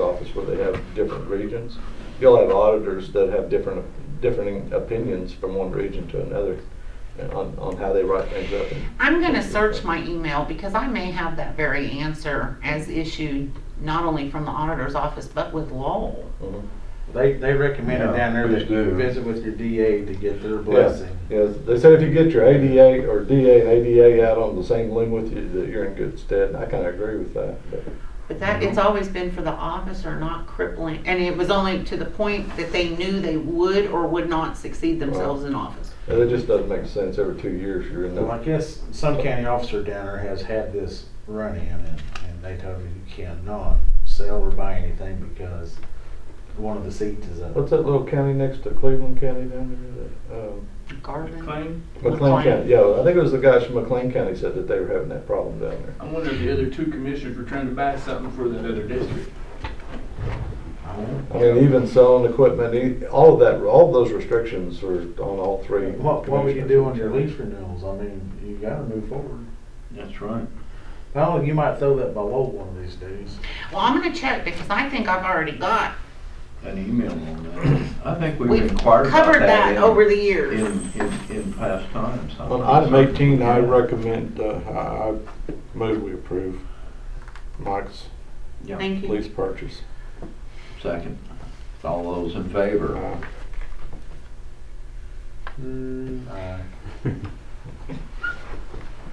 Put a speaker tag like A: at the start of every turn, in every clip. A: office where they have different regions. You'll have auditors that have different, differing opinions from one region to another uh, on, on how they write things up.
B: I'm gonna search my email because I may have that very answer as issued not only from the auditor's office, but with Lowell.
A: Mhm.
C: They, they recommended
D: Yeah,
C: down there
D: please
C: that you
D: do.
C: visit with your DA to get their
A: Yeah,
C: blessing.
A: yeah, they said if you get your ADA or DA and ADA out on the same limb with you, that you're in good stead, and I kinda agree with that, but.
B: But that, it's
D: Uh-huh.
B: always been for the officer, not crippling, and it was only to the point that they knew they would or would not succeed themselves in office.
A: It just doesn't make sense, every two years you're in
C: Well, I
A: the,
C: guess some county officer down there has had this run-in and, and they told me you cannot sell or buy anything because one of the seats is up.
A: what's that little county next to Cleveland County down there? that, um,
B: Garvin.
E: McLean,
A: McLean County, yeah, I think it was the guys from McLean County said that they were having that problem down there.
E: I wonder if the other two commissioners were trying to buy something for that other district.
C: I won't-
A: I mean, even selling equipment, e- all of that, all of those restrictions were on all three.
C: What, what we can
A: commissioners.
C: do on your lease renewals, I mean, you gotta move forward.
D: That's right.
C: Paul, you might throw that below one of these days.
B: Well, I'm gonna check because I think I've already got,
D: An email on that. I think we've
B: we've
D: inquired about that.
B: covered that
D: in-
B: over the years.
D: In, in, in past times. I
F: On
D: think
F: item
D: so.
F: 18, I
D: Yeah.
F: recommend, uh, I I move we approve Mike's
D: Yeah,
B: Thank you.
F: lease purchase.
D: second. All those in favor?
F: Uh,
C: Aye.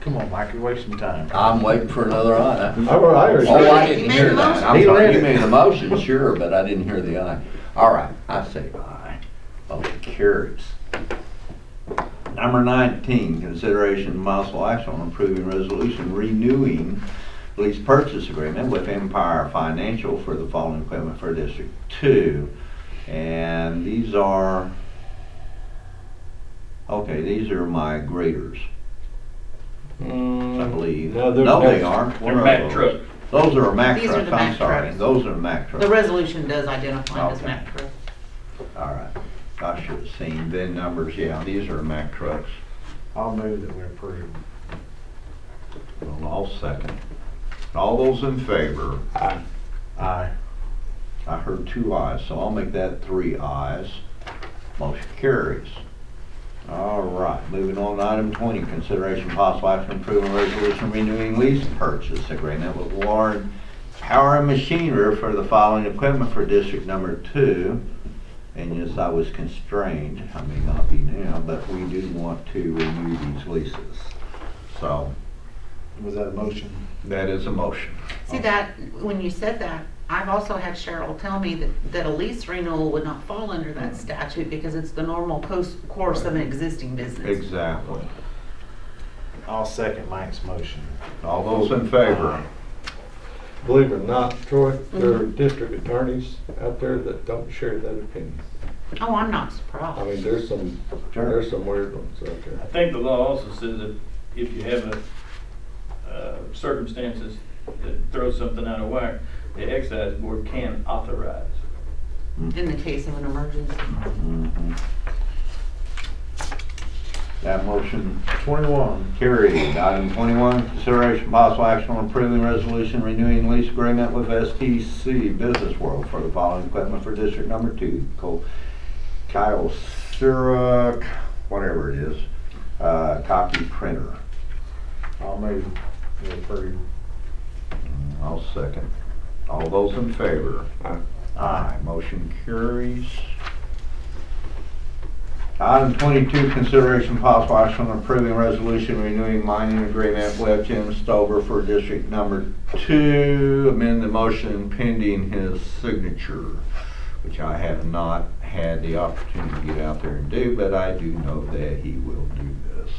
C: Come on, Mike, you're wasting time.
D: I'm waiting for another aye.
A: I, I already
D: Oh, I
A: said,
B: You
D: didn't
B: made
D: hear
B: a
D: that.
B: motion.
D: I'm
C: He
D: sorry,
C: read
D: you
C: it.
D: made a motion, sure, but I didn't hear the aye. All right, I say aye. Motion carries. Number 19, consideration and possible action on approving resolution renewing lease purchase agreement with Empire Financial for the following equipment for District 2. And these are, okay, these are my graders, I
F: mm,
D: believe.
F: no, they're
D: No, they
F: next-
D: aren't. What
E: Their
D: are
E: Mack
D: those?
E: truck.
D: Those are Mack
B: These are
D: trucks,
B: the
D: I'm
B: Mack
D: sorry,
B: trucks.
D: those are Mack
B: The
D: trucks.
B: resolution does identify as
D: Okay.
B: Mack Truck.
D: All right, I should have seen VIN numbers, yeah, these are Mack trucks.
C: I'll move that we approve.
D: Well, I'll second. All those in favor,
F: I-
C: Aye.
D: I heard two ayes, so I'll make that three ayes. Motion carries. All right, moving on to item twenty, consideration possible action approving resolution renewing lease purchase agreement with Warren Power and Machinery for the following equipment for district number two. And yes, I was constrained, I may not be now, but we do want to renew these leases. So,
C: Was that a motion?
D: that is a motion.
B: See that, when you said that, I've also had Cheryl tell me that, that a lease renewal would not fall under
A: Mm.
B: that statute because it's the normal course, course of an existing business.
D: Exactly.
C: I'll second Mike's motion.
D: All those in favor?
A: believe it or not, Troy, there are district attorneys out there that don't share that opinion.
B: Oh, I'm not
A: I
B: surprised.
A: mean, there's some, there's some weird ones out
E: I
A: there.
E: think the law also says that if you have a, uh, circumstances that throw something out of whack, the excise board can authorize.
B: In the case of an emergency.
D: Mhm. That motion
C: Twenty-one.
D: carried. Item twenty-one, consideration possible action on approving resolution renewing lease agreement with STC Business World for the following equipment for district number two, called Kyle Syrup, whatever it is, uh, copy printer.
C: I'll move we approve.
D: I'll second. All those in favor?
F: Aye.
D: Aye, motion carries. Item twenty-two, consideration possible action on approving resolution renewing mining agreement with Jim Stover for district number two. Amend the motion pending his signature, which I have not had the opportunity to get out there and do, but I do know that he will do this.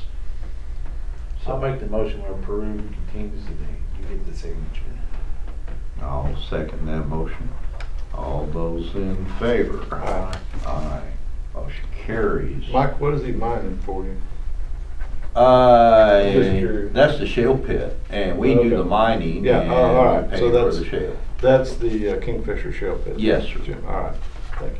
C: I'll make the motion we approve contingency date. You get the signature.
D: I'll second that motion. All those in favor?
C: Aye.
D: Aye. Motion carries.
A: Mike, what is he mining for you?
D: Uh,
A: Just curious.
D: that's the shale pit, and we do
A: Okay.
D: the mining
A: Yeah,
D: and
A: oh, all right.
D: we
A: So
D: pay for
A: that's-
D: the shale.
A: That's the uh, Kingfisher Shell Pit.
D: Yes, sir.
A: Jim, All right, thank you.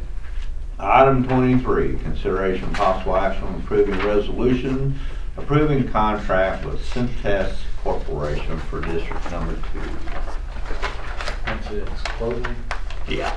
D: Item twenty-three, consideration possible action on approving resolution, approving contract with Centess Corporation for District Number Two.
C: That's it. It's closing.
E: Yeah.